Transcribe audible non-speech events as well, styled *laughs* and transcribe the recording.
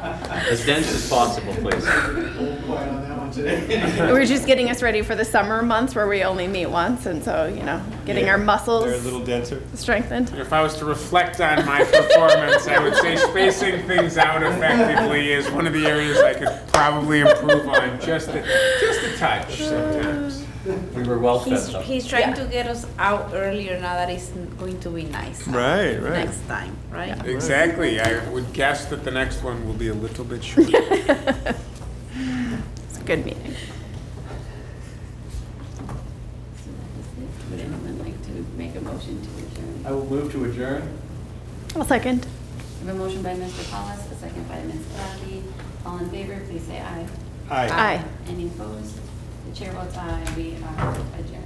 as dense as possible, please. Quiet on that one today. We're just getting us ready for the summer months where we only meet once, and so, you know, getting our They're a muscles little denser. strengthened. *laughs* If I was to reflect on my performance, I would say spacing things out effectively is one of the areas I could probably improve on just a, just a touch sometimes. We were well He's, fed up. he's trying Yeah. to get us out earlier now that it's n- going to be nice out Right, right. next time, right? Exactly. I would guess that the next one will be a little bit shorter. It's a good meeting. Would anyone like to make a motion to adjourn? I will move to adjourn. I'll second. I have a motion by Mr. Paulus, a second by Ms. Kowski. All in favor, please say aye. Aye. Aye. Any opposed? The chair votes aye, we are adjourned.